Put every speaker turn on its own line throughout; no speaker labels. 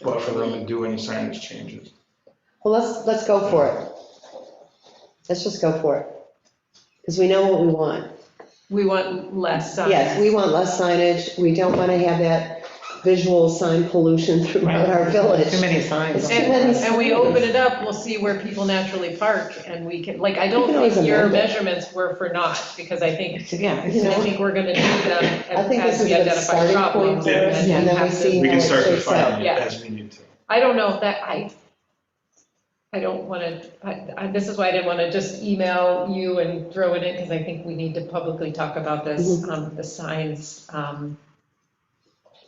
the room and do any signage changes.
Well, let's, let's go for it. Let's just go for it. Because we know what we want.
We want less sign.
Yes, we want less signage. We don't want to have that visual sign pollution throughout our village.
Too many signs.
It's too many
And, and we open it up, we'll see where people naturally park, and we can, like, I
You
don't
can always
think your
amend it.
measurements were for naught, because I think,
Yeah,
You
I
know.
it's-
think we're gonna need them
I think
as
this is
we
a good
identify
starting point
problems.
for us,
then
and then we
have to-
see
We
how
can start
it shakes out.
refining it
Yeah.
as we need to.
I don't know if that, I, I don't want to, this is why I didn't want to just email you and throw it in, because I think we need to publicly talk about this,
Mm-hmm.
um, the signs. um,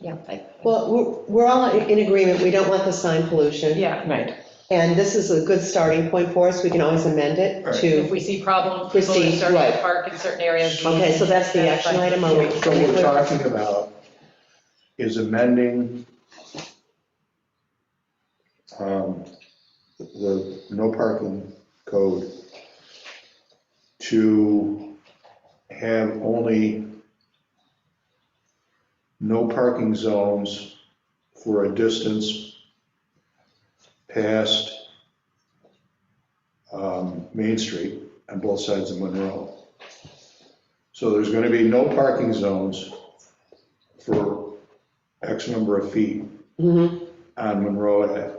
Yeah, I-
Well, we're- we're all in agreement, we don't want the sign pollution,
yeah,
right.
and this is a good starting point for us, we can always amend it
Right.
if
to,
we see problems, people that
Proceed,
start to
right.
park in certain areas. we-
okay, so that's the action item, are we?
So what we're talking about is amending um, the no parking code to have only no parking zones for a distance past um, Main Street on both sides of Monroe. So there's gonna be no parking zones for X number of feet
Mhm,
on Monroe Ave,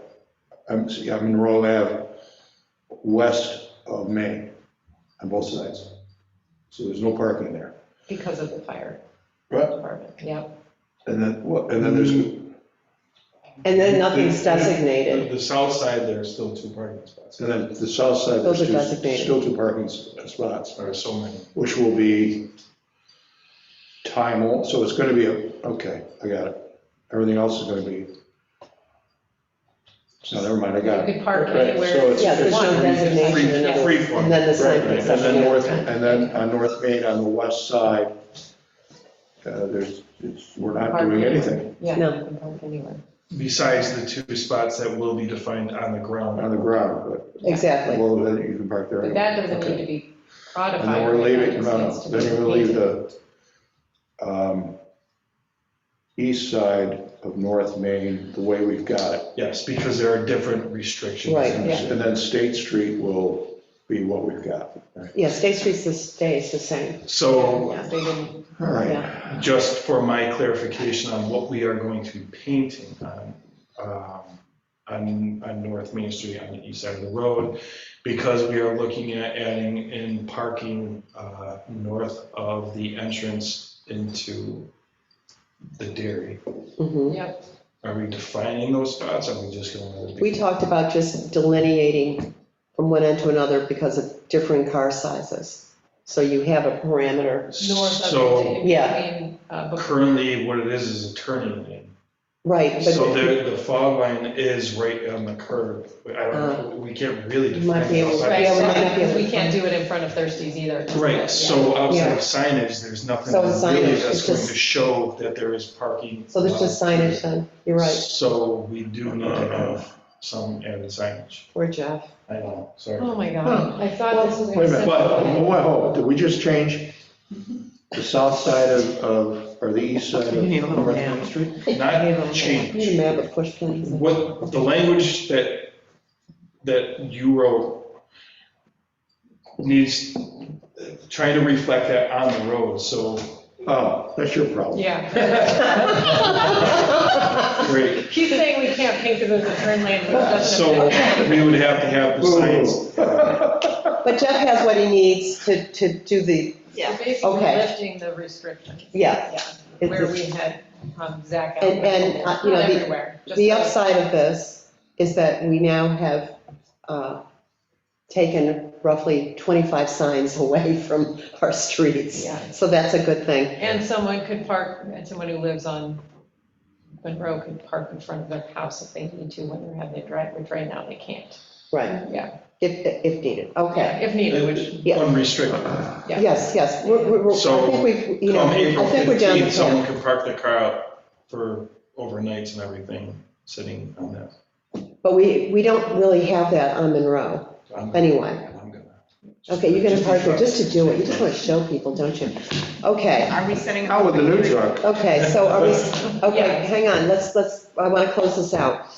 I'm, sorry, on Monroe Ave, west of Main, on both sides. So there's no parking there.
Because of the fire
Right,
department, yeah.
and then, what- and then there's,
And then nothing's designated,
The south side, there are still two parking spots,
and then the south side, there's
Those are
two,
designated.
still two parking s- uh, spots,
there are so many.
which will be time, al- so it's gonna be, a okay, I got it. Everything else is gonna be, no, never mind, I got it.
You could park
Right, so
anywhere.
it's-
yeah, there's
it's
no
free-
designation,
free-
and other-
free form.
and then the sign
Right,
picks
And
up
then
the other
north,
time.
and then on North Main, on the west side, uh, there's, it's- we're not
Park
doing
anywhere.
anything
Yeah,
No.
you can park anywhere.
Besides the two spots that will be defined on the ground.
on the ground, but,
Exactly,
well, then you can park there.
But
anyway.
that doesn't need to be codified.
And then we're leaving,
It
no,
just
no,
needs to
then
be
we're leaving
painted.
the um, east side of North Main the way we've got it.
Yes, because there are different restrictions.
Right,
and
yeah.
And then State Street will be what we've got. right?
yeah, State Street's the, stays the same,
So
Yeah, they didn't,
All right,
yeah,
just for my clarification on what we are going to be painting on, um, on, on North Main Street, on the east side of the road, because we are looking at adding in parking uh, north of the entrance into the dairy.
Hmm?
mhm.
yeah,
Are we defining those spots? Are we just going to?
We talked about just delineating from one end to another because of different car sizes, so you have a parameter
north of,
So
the-
Yeah.
between, uh, Book-
currently, what it is, is a turning lane.
Right,
So
but
the, the fog line is right on the curb. I don't, we can't really
Uh, You might
define
be able
it
to-
outside.
yeah, we might not be able
because
to-
we can't do it in front of Thirsties either. Yeah.
Right, so outside
Yeah.
of signage, there's nothing
So signage
really
is
that's going
just-
to show that there is parking.
so there's just signage then, you're right,
So we do need to have some added signage.
poor Jeff.
I know,
Oh,
sorry.
my God, I thought this was.
wait a minute, but,
acceptable.
whoa, did we just change the south side of, of, or the east side of
You need a little
North
map.
Main Street?
Not
You need
change.
a map of push pins.
What, the language that, that you wrote needs, trying to reflect that on the road, so
Oh, that's your problem.
Yeah,
great.
he's saying we can't paint because it's a turn lane, which doesn't.
So
affect-
we would have to have the signs,
But Jeff has what he needs to, to do the,
Yeah, basically
Okay.
lifting the restriction,
yeah.
yeah,
It's-
where we had um, Zach. out.
And- and, uh, you know,
Not
the-
everywhere, just
The
like-
upside of this is that we now have uh, taken roughly 25 signs away from our streets.
Yeah.
So that's a good thing.
And someone could park, and someone who lives on Monroe could park in front of their house if they need to when they're having their driveway drained out, they can't.
Right.
Yeah.
If, if needed, okay.
If needed, which,
Yeah.
unrestricted.
Yeah.
Yes, yes, we're, we're, we're-
So,
I think we've, you know,
Come April
I think we're down.
15th,
the path.
someone could park their car out for overnights and everything, sitting on that.
But we, we don't really have that on Monroe,
I'm-
anyway.
I'm gonna-
Okay, you're gonna
Just
park there
in
just to do it, you just wanna show people, don't you? Okay,
Are we setting?
How with the new truck?
okay, so are we, okay, hang on, let's, let's, I wanna close this out.